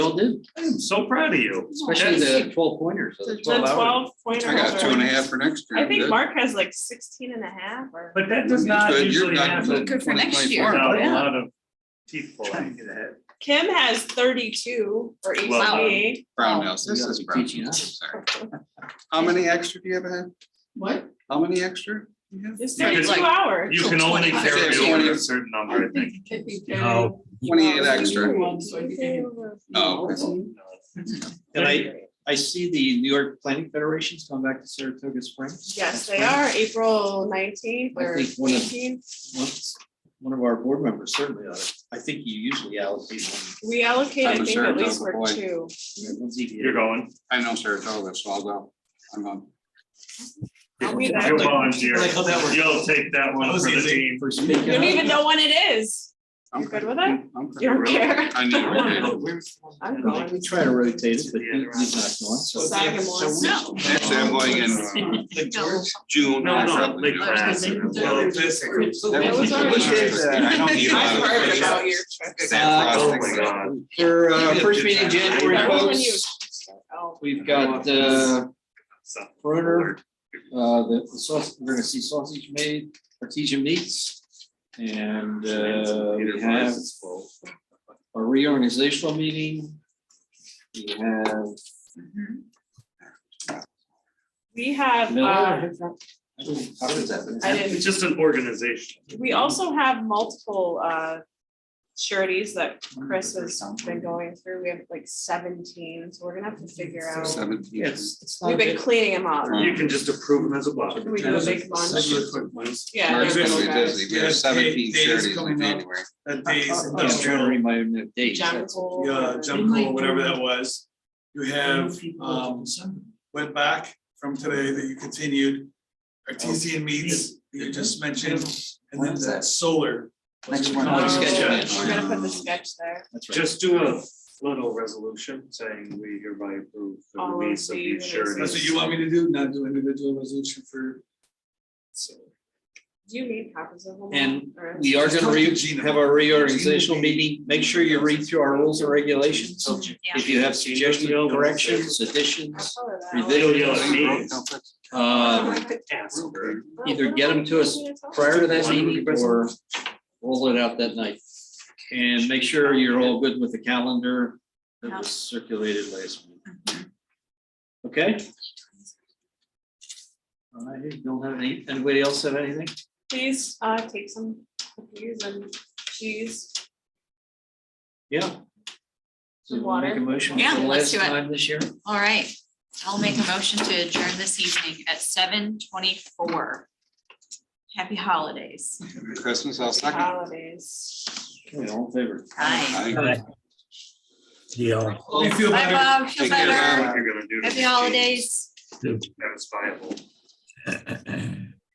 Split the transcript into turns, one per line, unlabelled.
You'll do,
I'm so proud of you.
especially the twelve pointers, so
The
the twelve hours.
twelve pointers.
I got two and a half for next
I
year.
think
Good.
Mark has like sixteen and a half or.
But that does not
Good, you're
usually
not-
happen.
Good for next year.
Without a
Yeah.
lot of teeth pulling.
Kim has thirty-two for
Wow.
ECE.
Brown house, this
You gotta
is
be
brown.
teaching
house,
us.
sorry. How many extra do you have ahead?
What?
How many extra? you have?
It's
You could-
thirty-two hours.
You
So
can only
25.
carry
Yeah,
over
20.
a certain number, I think.
Could be
No.
very-
Twenty-eight
Well,
extra.
one, so I think I did-
Oh, okay.
And I, I see the New York Planning Federation's come back to Saratoga Springs.
Yes, they are, April nineteenth
I
or
think one of-
eighteenth.
Once- One of our board members certainly ought to, I think you usually allocate
We allocate, I
I'm
think,
sure
at
it
least
does,
for
boy.
two.
one. one's each year.
You're going.
I know Saratoga, so I'll go. I'm on.
I'll be
You're
there.
volunteer.
Like how that works.
You'll take that one for the team.
For
You don't
speaking
even know when it is.
I'm
You good
good.
with it?
I'm
You
good.
don't care.
I need a vacation.
I'm
up.
going.
We try to rotate it, but
Yeah.
you- he's not going, so.
Sagamores.
No.
Actually, I'm going in
No.
June.
No,
or
no,
something.
like
That
class. and
Well,
we'll-
was
was already-
delicious. I don't need a lot
I've
of
heard
fish.
about your trip.
Sad
Oh,
frosting.
my God.
For, uh, first meeting in January,
Remember when you-
folks,
Oh,
we've got, uh,
So-
Bruner, uh, the the sauce, we're gonna see sausage made, artesian meats. And, uh, we have a reorganizational meeting. We have
We have, uh,
Miller. I don't- How does that?
I didn't
It's just an organization.
We also have multiple uh sureties that Chris has been going through. We have like seventeen, so we're gonna have to figure out.
Seventeen.
Yes, it's not
We've
a
been
big-
cleaning them up.
You can just approve them as a block.
We do a big bunch. Yeah.
Mark's
they're
gonna
little
be
guys.
busy. We have seventeen thirties in January.
I'm just trying to remind me of dates.
John Cole.
Yeah,
and-
Jim Cole, whatever that was. You have, um, went back from today that you continued. Artesian meats that you just mentioned, and then that solar.
Next one.
Oh,
Oh,
sketch.
We're gonna put the sketch there.
That's right.
Just do a little resolution saying we hereby approve the
All of
release of
the
these
releases.
That's what
sureties.
you want me to do, not do individual resolution for.
Do you need copies of them? all?
And
Or-
We are gonna re- have our reorganizational
Gina.
meeting. Make sure you read through our rules and regulations.
Yeah.
If you have suggestions, corrections, additions,
I'll color that.
You'll yell at me.
Um,
uh,
Ask her.
either get them to us prior to that meeting or roll it out that night. And make sure you're all good with the calendar that was circulated last week.
Mm-hmm.
Okay? All right, don't have any, anybody else have anything?
Please uh take some cookies and cheese.
Yeah. So you wanna make a motion for
Yeah,
the
let's
last
do it.
time this year?
All right, I'll make a motion to adjourn this evening at seven twenty-four. Happy holidays.
Christmas, I'll second.
Holidays.
Okay, all in favor?
Bye.
I-
Yeah,
You feel
Bye,
better.
Bob. Feel
Take care,
Here's
better.
what you're gonna do to
Happy
the
holidays.
cheese That is viable.